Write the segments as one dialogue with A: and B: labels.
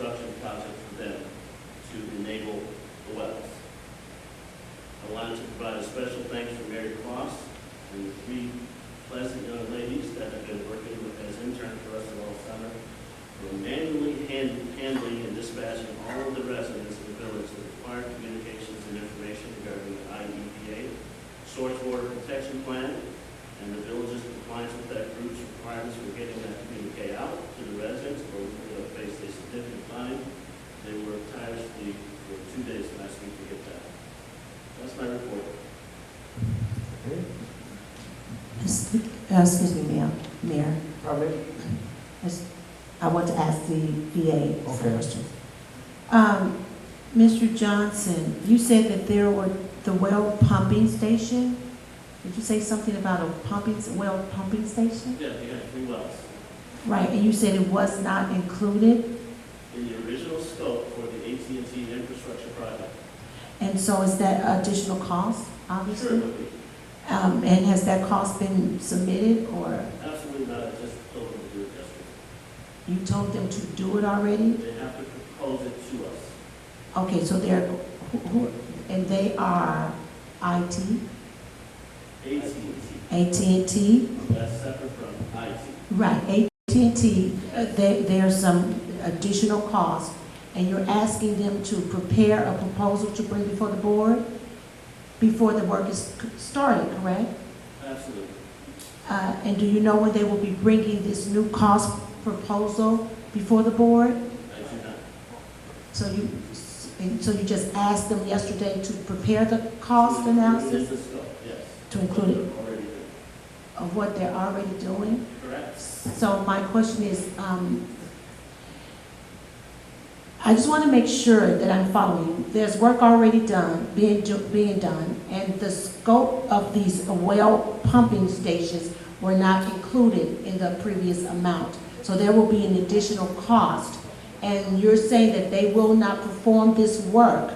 A: project for them to enable the wells. I wanted to provide a special thanks for Mary Cross and the three pleasant young ladies that have been working with- as interns for us all summer for manually hand- handling and dispatching all of the residents of the village that require communications and information regarding the IEPA, source water protection plan, and the village's compliance with that group's requirements for getting that communique out to the residents, or we're going to face a significant fine. They worked tirelessly for two days last week to get that. That's my report.
B: Excuse uh, excuse me, ma'am, Mayor.
C: Comment?
B: I want to ask the VA a
C: Okay.
B: question. Um, Mr. Johnson, you said that there were the well pumping station? Did you say something about a pumping, well pumping station?
A: Yeah, they had three wells.
B: Right, and you said it was not included,
A: In the original scope for the at and T infrastructure project.
B: and so is that additional cost,
A: Sure, it
B: obviously?
A: would be.
B: Um, and has that cost been submitted, or
A: Absolutely not, I just told them to do it yesterday.
B: you told them to do it already?
A: They have to propose it to us.
B: Okay, so they're, who, who, and they are IT,
A: at and
B: AT&T?
A: T. that's separate from IT.
B: Right, AT&T, uh, there, there's some additional cost, and you're asking them to prepare a proposal to bring before the board before the work is c- started, correct?
A: Absolutely.
B: Uh, and do you know when they will be bringing this new cost proposal before the board?
A: I do not.
B: So you, s- and so you just asked them yesterday to prepare the cost analysis
A: It is a scope, yes.
B: To include it.
A: Already done.
B: of what they're already doing?
A: Correct.
B: So my question is, um, I just want to make sure that I'm following. There's work already done, being, do- being done, and the scope of these well pumping stations were not included in the previous amount. So there will be an additional cost. And you're saying that they will not perform this work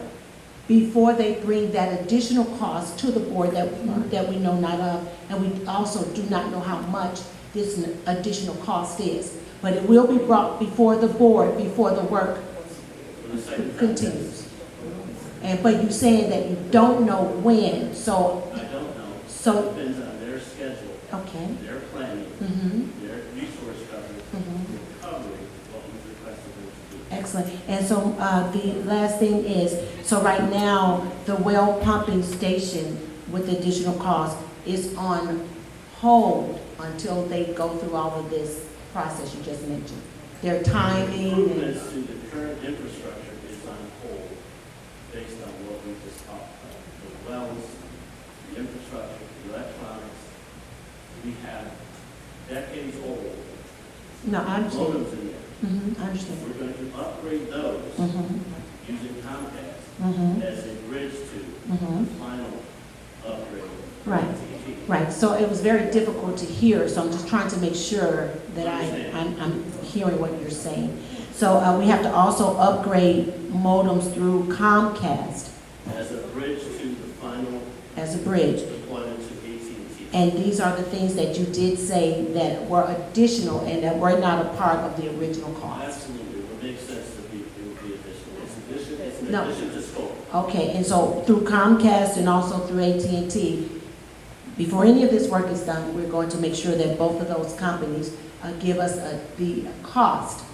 B: before they bring that additional cost to the board that, that we know not of, and we also do not know how much this n- additional cost is. But it will be brought before the board, before the work
A: For the second time.
B: continues. And, but you're saying that you don't know when, so,
A: I don't know.
B: So-
A: Depends on their schedule,
B: okay.
A: their planning,
B: Mm-hmm,
A: their resource coverage,
B: mm-hmm.
A: recovery, what was requested them to do.
B: Excellent. And so uh, the last thing is, so right now, the well pumping station with the additional cost is on hold until they go through all of this process you just mentioned. Their timing and,
A: Improvements to the current infrastructure is on hold based on what we just talked about. The wells, the infrastructure, the electronics. We have decades old
B: no, I understand.
A: modems in there.
B: Mhm, I understand.
A: We're going to upgrade those
B: Mhm,
A: using Comcast
B: mhm,
A: as a bridge to the
B: mhm.
A: final upgrade.
B: Right. Right, so it was very difficult to hear, so I'm just trying to make sure that I, I'm, I'm hearing what you're saying. So uh, we have to also upgrade modems through Comcast
A: As a bridge to the final
B: as a bridge.
A: deployment to AT&T.
B: And these are the things that you did say that were additional and that were not a part of the original cost.
A: Absolutely, it would make sense to be, it would be additional. It's addition, it's an
B: No.
A: addition to scope.
B: Okay, and so through Comcast and also through AT&T, before any of this work is done, we're going to make sure that both of those companies uh, give us uh, the cost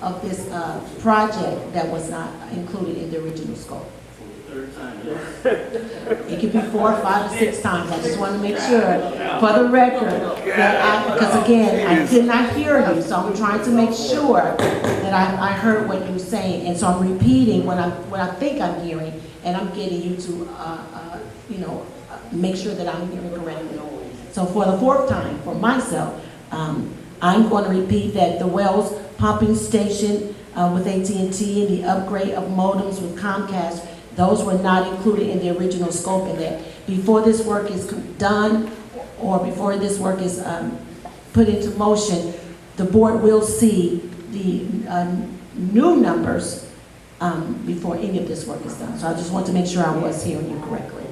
B: of this uh, project that was not included in the original scope.
A: For the third time, yes.
B: It could be four, five, or six times, I just want to make sure, for the record, that I, because again, I did not hear you, so I'm trying to make sure that I, I heard what you were saying, and so I'm repeating what I, what I think I'm hearing, and I'm getting you to, uh, uh, you know, uh, make sure that I'm hearing correctly. So for the fourth time, for myself, um, I'm going to repeat that the Wells pumping station uh, with at and T and the upgrade of modems with Comcast, those were not included in the original scope and that before this work is done or before this work is um, put into motion, the board will see the uh, new um, numbers um, before any of this work is done. So I just want to make sure I was hearing you correctly.